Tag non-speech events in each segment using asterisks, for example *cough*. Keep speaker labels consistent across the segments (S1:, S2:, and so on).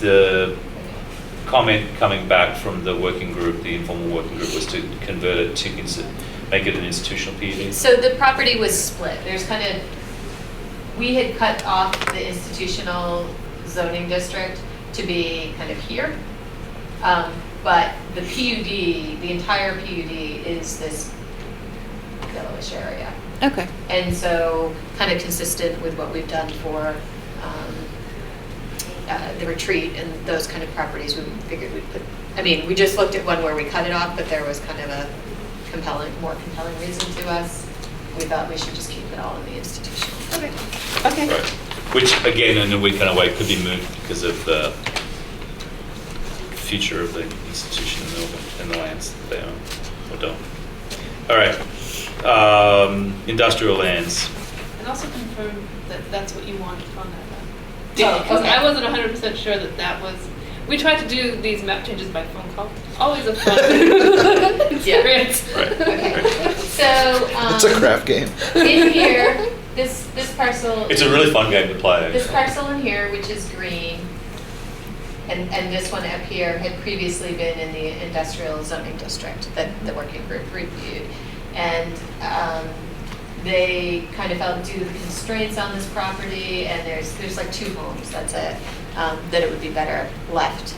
S1: the comment coming back from the working group, the informal working group, was to convert it to, insti- make it an institutional PUD?
S2: So the property was split. There's kind of, we had cut off the institutional zoning district to be kind of here. Um, But the PUD, the entire PUD is this yellowish area.
S3: Okay.
S2: And so, kind of consistent with what we've done for um, uh, the retreat and those kind of properties, we figured we'd put, I mean, we just looked at one where we cut it off, but there was kind of a compelling, more compelling reason to us. We thought we should just keep it all in the institution.
S1: *laughs*
S3: Okay. Okay.
S1: Right. Which, again, in a week and a way, could be moved because of the future of the institution and the, and the lands that they own or don't. All right. Um, industrial lands.
S4: And also confirm that that's what you want from that map.
S2: Oh,
S4: Because
S2: okay.
S4: I wasn't hundred percent sure that that was, we tried to do these map changes by phone call. Always
S2: *laughs*
S4: a *laughs* fun experience.
S1: Right.
S4: *laughs*
S2: Okay, so.
S5: It's a
S2: um,
S5: crap game.
S2: In here, this, this parcel.
S1: It's a really fun game to play.
S2: This parcel in here, which is green, and, and this one up here had previously been in the industrial zoning district that the working group reviewed. And um, they kind of felt due to the constraints on this property, and there's, there's like two homes, that's it, um, that it would be better left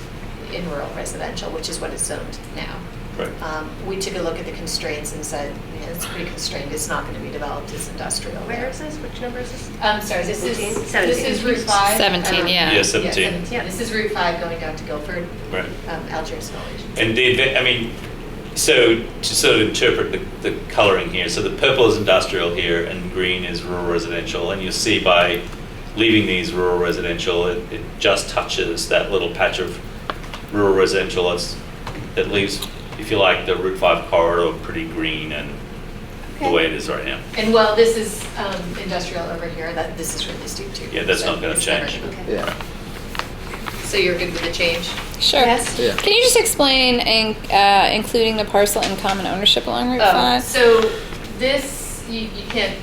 S2: in rural residential, which is what it's zoned now.
S1: Right.
S2: Um, We took a look at the constraints and said, yeah, it's pretty constrained, it's not going to be developed as industrial.
S6: Where
S2: there."
S6: is this? Which number is this?
S2: I'm sorry, this is,
S6: 14?
S2: this is Route 5.
S3: 17,
S2: um,
S3: yeah.
S1: Yeah, 17.
S6: Yeah.
S2: This is Route 5 going down to Guilford,
S1: Right.
S2: um, Algiers Village.
S1: And the, adva- I mean, so to sort of interpret the, the coloring here, so the purple is industrial here and green is rural residential. And you'll see by leaving these rural residential, it, it just touches that little patch of rural residential that's, that leaves, if you like, the Route 5 corridor pretty green and the way it is right now.
S2: And while this is um, industrial over here, that, this is really steep too.
S1: Yeah, that's
S2: so
S1: not gonna
S2: it's never-
S1: change.
S2: okay.
S5: Yeah.
S2: So you're good with the change?
S3: Sure.
S6: Yes.
S5: Yeah.
S3: Can you just explain in, uh, including the parcel in common ownership along Route
S2: Oh,
S3: 5?
S2: So this, you, you can't,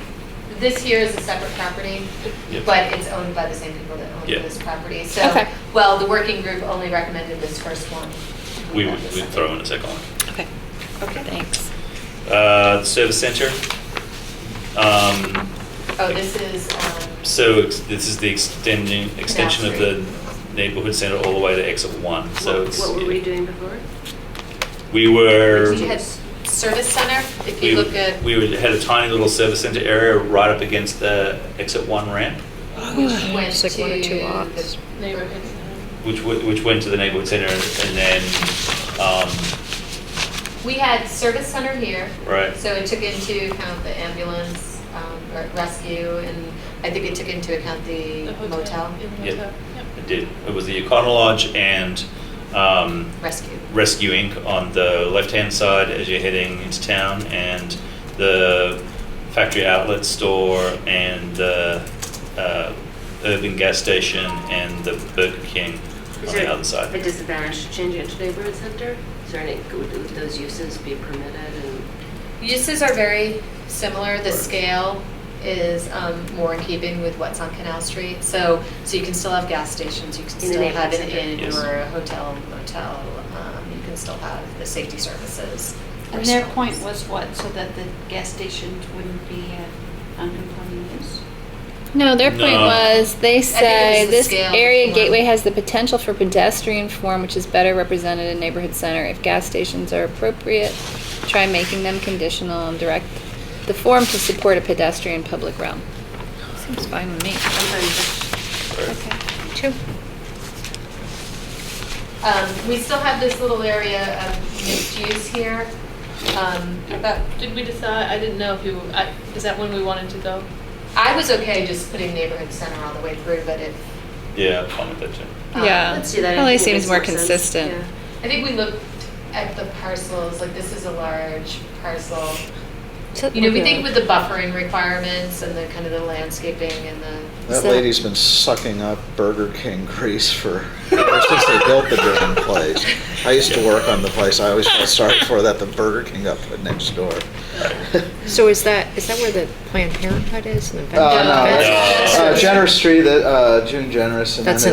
S2: this here is a separate property,
S1: Yep.
S2: but it's owned by the same people that own
S1: Yeah.
S2: this property. So,
S3: Okay.
S2: well, the working group only recommended this first one.
S1: We would we'd throw in a second one.
S3: okay.
S6: Okay.
S3: Thanks.
S1: Uh, the service center. Um,
S2: Oh, this is, um,
S1: So ex- this is the extending, extension of the neighborhood center all the way to exit one, so
S6: What-
S1: it's.
S6: What were we doing before?
S1: We were.
S2: you had service center, if you
S1: we-
S2: look at.
S3: *sighs*
S1: We would- had a tiny little service center area right up against the exit one ramp,
S2: which
S3: It's
S2: went
S3: like one or two
S2: to
S3: lots.
S2: the-
S4: Neighborhood.
S1: which, w- which went to the neighborhood center and and then, um,
S2: We had service center here.
S1: Right.
S2: So it took into account the ambulance, um, or rescue, and I think it took into account the
S4: The hotel.
S2: motel,
S4: Yeah, the
S1: Yep.
S4: motel. Yep.
S1: it did, it was the Econo Lodge and, um,
S2: rescue.
S1: Rescue Inc. on the left-hand side as you're heading into town, and the factory outlet store, and the uh, urban gas station, and the Burger King
S6: Is
S1: on the
S6: there
S1: other side.
S6: A disadvantage to changing it to neighborhood center? Is there any, would would those uses be permitted and?
S2: Uses are very similar, the scale is um, more in keeping with what's on Canal Street. So, so you can still have gas stations, you can
S6: In the
S2: still have an
S6: neighborhood center.
S2: inn
S1: Yes.
S2: or a hotel, motel, um, you can still have the safety services.
S7: And their
S2: restaurants.
S7: point was what, so that the gas stations wouldn't be uh, non-conforming use?
S3: No, their point
S1: No.
S3: was they say
S2: the
S3: this
S2: scale
S3: area
S2: before.
S3: gateway has the potential for pedestrian form, which is better represented in neighborhood center. If gas stations are appropriate, try making them conditional and direct the form to support a pedestrian public realm. Seems fine with me.
S6: Sometimes
S3: Okay. True.
S2: Um, we still have this little area of mixed use here. Um, but
S4: Did we decide, I didn't know if you, I- is that when we wanted to go?
S2: I was okay just putting neighborhood center all the way through, but if,
S1: Yeah, I'm fine with that too.
S2: Um,
S3: Yeah.
S6: Let's do that. I
S3: Probably
S6: think it
S3: seems
S6: makes
S3: more
S6: more sense.
S3: consistent.
S6: Yeah.
S2: I think we looked at the parcels, like this is a large parcel. You know, we think with the buffering requirements and the kind of the landscaping and the,
S5: That
S3: So-
S5: lady's been sucking up Burger King grease for, ever since they built the
S2: *laughs*
S5: damn place. I used to work on the place, I always felt sorry for that, the Burger King up next door.
S8: So is that, is that where the Planned Parenthood is? and the
S5: Uh, no,
S8: vendor-
S1: that's-
S5: uh, Generous Street, uh, June Generous, and then
S8: That's
S5: it-